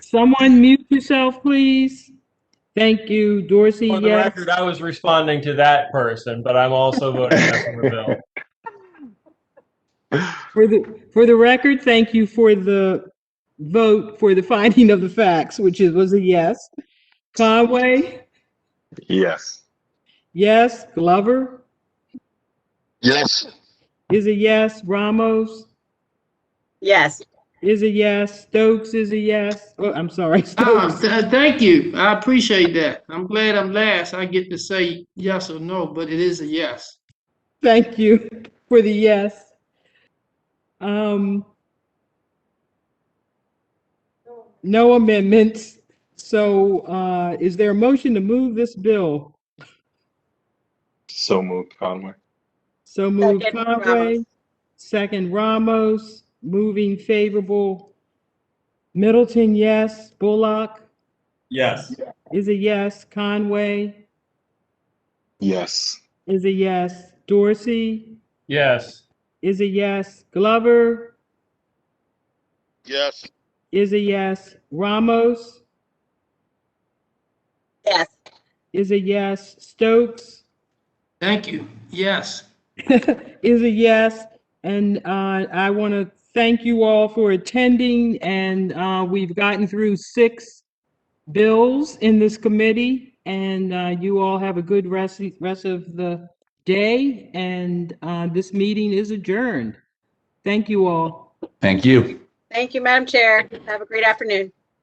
Someone mute yourself, please. Thank you, Dorsey, For the yes. record, I was responding to that person, but I'm also voting yes on the bill. For the, for the record, thank you for the vote for the finding of the facts, which is, was a yes. Conway, Yes. yes. Glover Yes. is a yes. Ramos Yes. is a yes. Stokes is a yes. Oh, I'm sorry, Oh, Stokes. th- thank you. I appreciate that. I'm glad I'm last. I get to say yes or no, but it is a yes. Thank you for the yes. Um, no amendments. So, uh, is there a motion to move this bill? So moved, Conway. So moved Second, Ramos. Conway, second Ramos, moving favorable. Middleton, yes. Bullock Yes. is a yes. Conway Yes. is a yes. Dorsey Yes. is a yes. Glover Yes. is a yes. Ramos Yes. is a yes. Stokes Thank you. Yes. is a yes. And uh, I want to thank you all for attending, and uh, we've gotten through six bills in this committee, and uh, you all have a good rest, rest of the day, and uh, this meeting is adjourned. Thank you all. Thank you. Thank you, Madam Chair. Have a great afternoon.